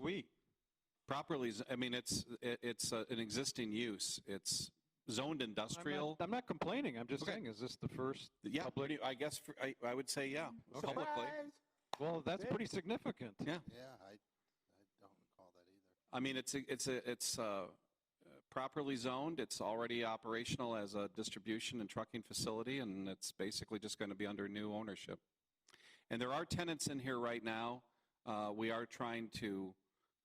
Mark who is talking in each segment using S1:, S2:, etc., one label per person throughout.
S1: week. Properly, z- I mean, it's, it- it's uh, an existing use. It's zoned
S2: I'm not-
S1: industrial.
S2: I'm not complaining, I'm just
S1: Okay.
S2: saying, is this the first?
S1: Yeah,
S2: public- Mm-hmm.
S1: pretty- I guess, for- I, I would say, yeah,
S2: Okay.
S1: publicly.
S2: Well, that's
S3: Yeah.
S2: pretty significant.
S1: Yeah.
S3: Yeah, I, I don't recall that either.
S1: I mean, it's, a- it's, a- it's uh, properly zoned. It's already operational as a distribution and trucking facility, and it's basically just going to be under new ownership. And there are tenants in here right now. Uh, We are trying to,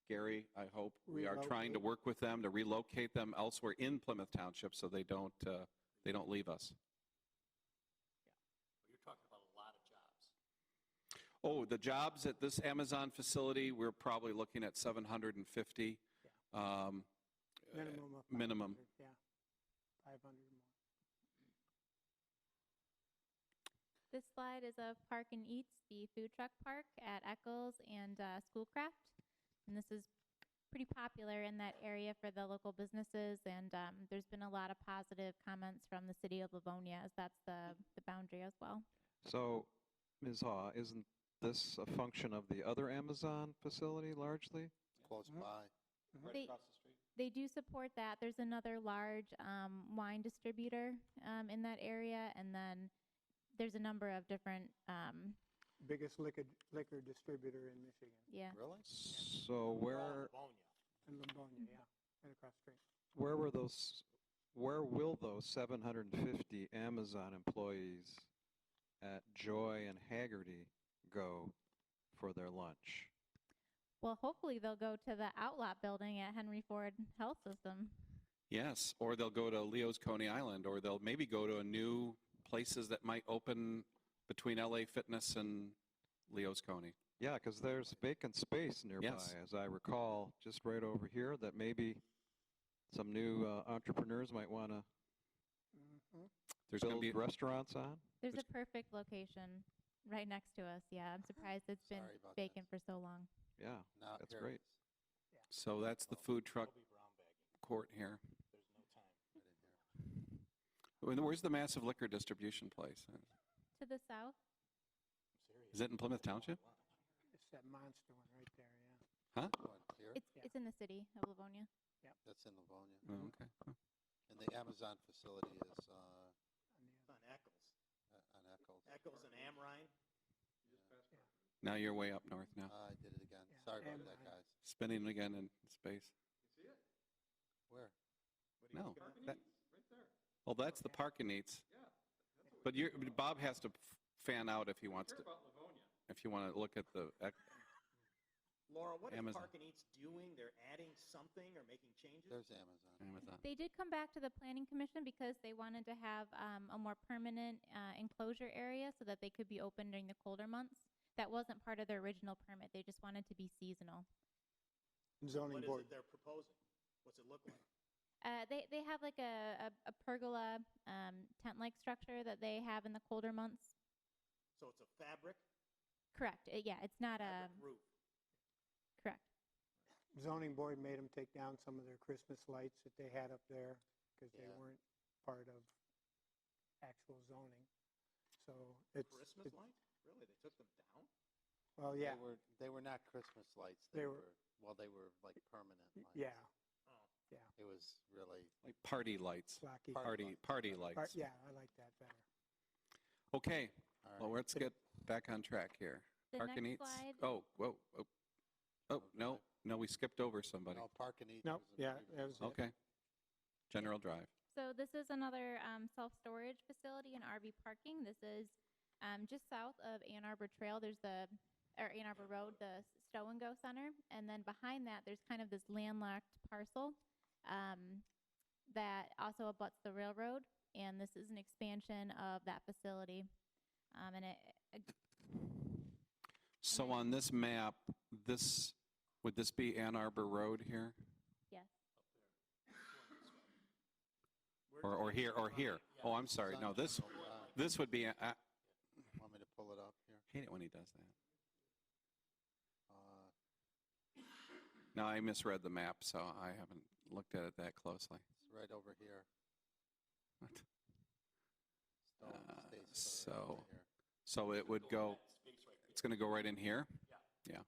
S1: Gary, I hope, we are trying to work with them to relocate them elsewhere in Plymouth Township so they don't, uh, they don't leave us. Oh, the jobs at this Amazon facility, we're probably looking at 750. Um,
S4: Minimum of.
S1: minimum.
S4: 500, Yeah. 500 or more.
S5: This slide is of Park and Eats, the food truck park at Eccles and uh, Schoolcraft. And this is pretty popular in that area for the local businesses. And um, there's been a lot of positive comments from the city of Livonia, as that's the, the boundary as well.
S2: So, Ms. Haw, isn't this a function of the other Amazon facility largely?
S3: Close
S4: Mhm.
S5: Mm-hmm.
S3: by.
S6: Mm-hmm.
S5: They- They do support that. There's another large um, wine distributor um, in that area. And then there's a number of different, um,
S4: Biggest liquor, liquor distributor in Michigan,
S5: yeah.
S3: Really?
S2: So where,
S4: in Livonia, yeah, and across the street.
S2: where were those, where will those 750 Amazon employees at Joy and Haggerty go for their lunch?
S5: Well, hopefully they'll go to the Outlot building at Henry Ford Health System.
S1: Yes, or they'll go to Leo's Coney Island, or they'll maybe go to a new places that might open between LA Fitness and Leo's Coney.
S2: Yeah, because there's vacant space nearby,
S1: Yes.
S2: as I recall, just right over here, that maybe some new uh, entrepreneurs might want to
S4: Mhm.
S1: There's going to
S2: build
S1: be
S2: restaurants on.
S5: There's
S1: Which-
S5: a perfect location right next to us. Yeah, I'm surprised it's been
S3: Sorry about that.
S5: vacant for so long.
S2: Yeah,
S3: Now,
S2: That's
S3: here it
S2: great.
S3: is.
S1: so that's the food truck court here.
S3: Right in here.
S1: And Where's the massive liquor distribution place?
S5: To the south?
S1: Is it in Plymouth Township?
S4: It's that monster one right there, yeah.
S3: One here.
S5: It's,
S4: Yeah.
S5: it's in the city of Livonia.
S3: That's in Livonia.
S1: Oh, okay.
S3: And the Amazon facility is, uh,
S4: On the other-
S6: On Eccles.
S3: uh, on Eccles.
S6: Eccles and Amrine.
S1: Now you're way up north now.
S3: Ah, I did it again.
S4: Yeah,
S3: Sorry about that,
S4: Amazon.
S3: guys.
S1: Spinning again in space.
S3: Where?
S1: No. that- Well, that's the
S4: Yeah.
S1: parking needs. But you're, but Bob has to f- fan out if he wants to. If you want to look at the, ec-
S6: Laura, what is
S1: Amazon.
S6: Park and Eats doing? They're adding something or making changes?
S3: There's Amazon.
S1: Amazon.
S5: They did come back to the planning commission because they wanted to have um, a more permanent uh, enclosure area so that they could be open during the colder months. That wasn't part of their original permit. They just wanted to be seasonal.
S4: Zoning
S6: What is
S4: board.
S6: it they're proposing? What's it look like?
S5: Uh, they they have like a, a, a pergola um, tent like structure that they have in the colder months.
S6: So it's a fabric,
S5: Correct. Uh, yeah, it's not a
S6: fabric roof.
S5: correct.
S4: Zoning board made them take down some of their Christmas lights that they had up there because they
S3: Yeah.
S4: weren't part of actual zoning. So it's.
S6: Christmas
S4: it's-
S6: light? Really? They took them down?
S4: Well,
S3: They
S4: yeah,
S3: were, they were not Christmas lights.
S4: They
S3: They
S4: were-
S3: were, well, they were like permanent
S4: y-
S3: lights.
S4: yeah,
S3: It
S6: Oh.
S3: was really,
S1: Like party lights,
S4: blocky.
S3: Part-
S1: party, party
S4: Part-
S1: lights.
S4: Yeah, I like that better.
S1: Okay,
S3: all right.
S1: well, let's get back on track here.
S5: The
S1: Park and
S5: next
S1: Eats.
S5: slide.
S1: Oh, whoa, oh, oh, no, no, we skipped over somebody.
S3: No, Park and Eat.
S4: Nope,
S3: was a
S4: yeah,
S3: previous
S4: that was
S3: one.
S4: it.
S1: Okay. General Drive.
S5: So this is another um, self-storage facility and RV parking. This is um, just south of Ann Arbor Trail. There's the or Ann Arbor Road, the Stow and Go Center, and then behind that, there's kind of this landlocked parcel um, that also abuts the railroad, and this is an expansion of that facility. Um, and it,
S1: So
S5: Okay.
S1: on this map, this, would this be Ann Arbor Road here?
S6: Where
S1: Or,
S6: does
S1: or
S6: that
S1: here, or
S6: line-
S1: here?
S6: yeah.
S1: Oh, I'm sorry,
S3: It's
S1: no,
S3: on
S1: this,
S3: Google Live.
S1: this would be, a- I
S3: Want me to pull it up here?
S1: hate it when he does that.
S3: Uh,
S1: No, I misread the map, so I haven't looked at it that closely.
S3: It's right over here.
S1: What?
S3: Stone
S1: Uh,
S3: State Store right
S1: so-
S3: here.
S1: So it would go, it's going to go right in here? Yeah.